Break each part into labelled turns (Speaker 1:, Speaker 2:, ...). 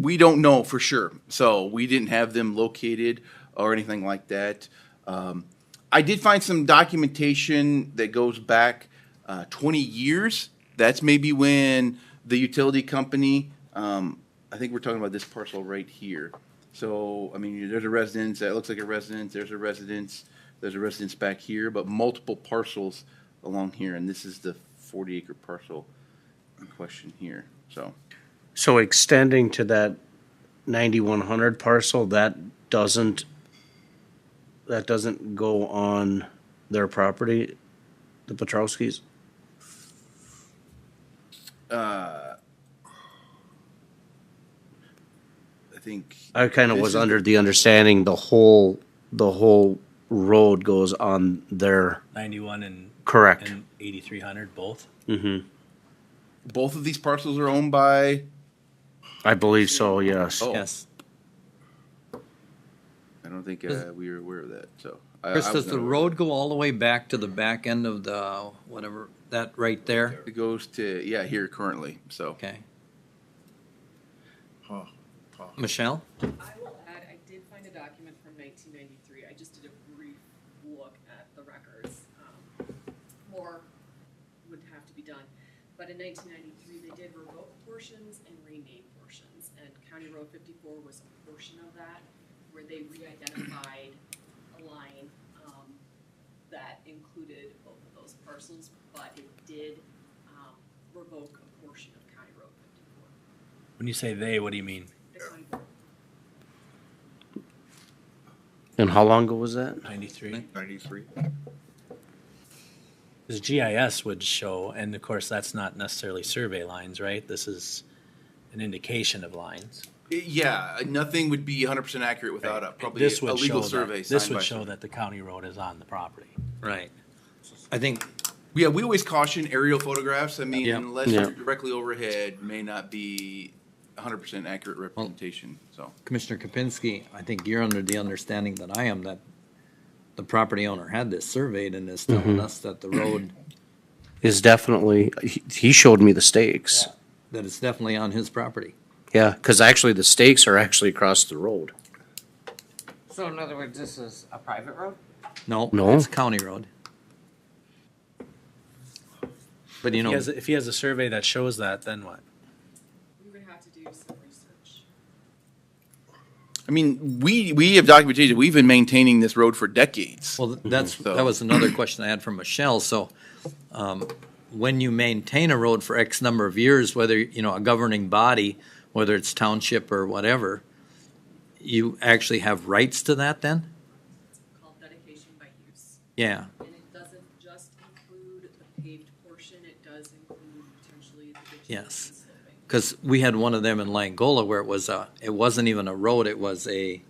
Speaker 1: We don't know for sure. So we didn't have them located or anything like that. Um, I did find some documentation that goes back uh, 20 years. That's maybe when the utility company, um, I think we're talking about this parcel right here. So, I mean, there's a residence, that looks like a residence, there's a residence, there's a residence back here, but multiple parcels along here. And this is the 40 acre parcel in question here, so.
Speaker 2: So extending to that ninety-one hundred parcel, that doesn't, that doesn't go on their property, the Petrowskis?
Speaker 1: I think,
Speaker 2: I kind of
Speaker 1: This
Speaker 2: was
Speaker 1: is the-
Speaker 2: under the understanding the whole, the whole road goes on their,
Speaker 3: 91 and,
Speaker 2: correct, Mm-hmm.
Speaker 3: and 8300 both.
Speaker 1: both of these parcels are owned by,
Speaker 2: I believe so, yes.
Speaker 1: oh,
Speaker 4: Yes.
Speaker 1: I don't think uh, we were aware of that, so. I-
Speaker 4: Chris,
Speaker 1: I
Speaker 4: does
Speaker 1: was
Speaker 4: the
Speaker 1: not aware.
Speaker 4: road go all the way back to the back end of the, whatever, that right there?
Speaker 1: It goes to, yeah, here currently, so.
Speaker 4: Okay. Michelle?
Speaker 5: I will add, I did find a document from nineteen ninety-three, I just did a brief look at the records. um, More would have to be done, but in nineteen ninety-three, they did revoke portions and rename portions, and County Road fifty-four was a portion of that, where they re-identified a line, um, that included both of those parcels, but it did, um, revoke a portion of County Road fifty-four,
Speaker 3: When you say they, what do you mean?
Speaker 5: the county board.
Speaker 2: And how long ago was that?
Speaker 3: 93?
Speaker 6: Ninety-three.
Speaker 3: Because GIS would show, and of course, that's not necessarily survey lines, right? This is an indication of lines.
Speaker 1: Yeah, nothing would be 100% accurate without a, probably
Speaker 3: This
Speaker 1: a
Speaker 3: would
Speaker 1: legal
Speaker 3: show that-
Speaker 1: survey.
Speaker 3: This
Speaker 1: signed by-
Speaker 3: would show that the county road is on the property.
Speaker 4: Right. I think,
Speaker 1: Yeah, we always caution aerial photographs. I mean,
Speaker 4: Yeah.
Speaker 1: unless
Speaker 2: Yeah.
Speaker 1: you're directly overhead, may not be 100% accurate representation. So,
Speaker 4: Commissioner Kapinski, I think you're under the understanding that I am, that the property owner had this surveyed and is telling us that the road,
Speaker 2: Is definitely, he, he showed me the stakes.
Speaker 4: that it's definitely on his property.
Speaker 2: Yeah, because actually the stakes are actually across the road.
Speaker 7: So in other words, this is a private road?
Speaker 4: No,
Speaker 2: No.
Speaker 4: it's county road.
Speaker 3: If
Speaker 4: But you
Speaker 3: he
Speaker 4: know,
Speaker 3: has, if he has a survey that shows that, then what?
Speaker 5: We would have to do some research.
Speaker 1: I mean, we we have documentation. We've been maintaining this road for decades.
Speaker 4: Well, th- that's,
Speaker 1: So-
Speaker 4: that was another question I had from Michelle, so, um, when you maintain a road for X number of years, whether, you know, a governing body, whether it's township or whatever, you actually have rights to that then?
Speaker 5: It's called dedication by use.
Speaker 4: Yeah,
Speaker 5: And it doesn't just include the paved portion, it does include potentially the ditches and
Speaker 4: Yes.
Speaker 5: sloping.
Speaker 4: because we had one of them in Langola where it was a, it wasn't even a road, it was a,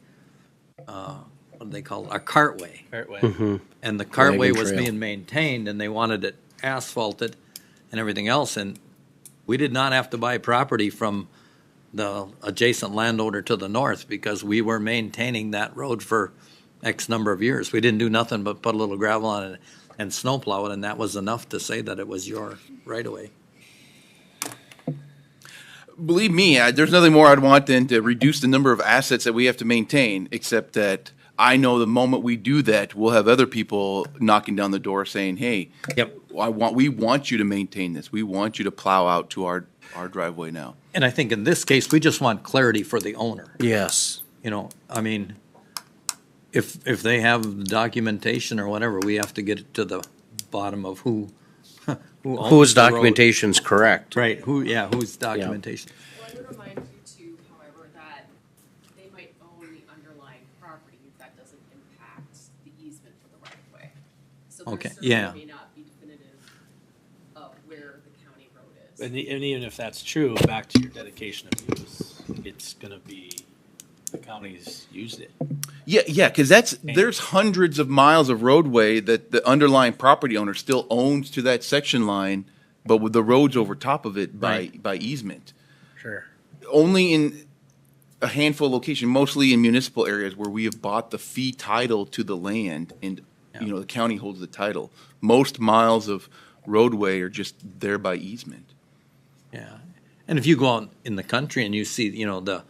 Speaker 4: uh, what do they call it, a cartway.
Speaker 3: Right way.
Speaker 4: And the cartway was
Speaker 2: trail.
Speaker 4: being maintained and they wanted it asphalted and everything else. And we did not have to buy property from the adjacent landowner to the north because we were maintaining that road for X number of years. We didn't do nothing but put a little gravel on it and snowplow it, and that was enough to say that it was your right of way.
Speaker 1: Believe me, I, there's nothing more I'd want than to reduce the number of assets that we have to maintain. Except that I know the moment we do that, we'll have other people knocking down the door saying, "Hey,
Speaker 4: Yep.
Speaker 1: I want we want you to maintain this. We want you to plow out to our our driveway now."
Speaker 4: And I think in this case, we just want clarity for the owner.
Speaker 2: Yes.
Speaker 4: you know, I mean, if, if they have documentation or whatever, we have to get to the bottom of who, who owns
Speaker 2: Whose
Speaker 4: the road.
Speaker 2: documentation's correct?
Speaker 4: Right, who, yeah, whose documentation.
Speaker 5: Well, I would remind you too, however, that they might own the underlying property, that doesn't impact the easement for the right of way. So there
Speaker 4: Okay,
Speaker 5: certainly
Speaker 4: yeah.
Speaker 5: may not be definitive of where the county road is.
Speaker 3: And, e- and even if that's true, back to your dedication of use, it's gonna be, the county's used it.
Speaker 1: Yeah, yeah, because that's there's hundreds of miles of roadway that the underlying property owner still owns to that section line, but with the roads over top of it by by easement.
Speaker 3: Sure.
Speaker 1: Only in a handful of locations, mostly in municipal areas where we have bought the fee title to the land, and you know the county holds the title. Most miles of roadway are just there by easement.
Speaker 4: Yeah. And if you go out in the country and you see, you know, the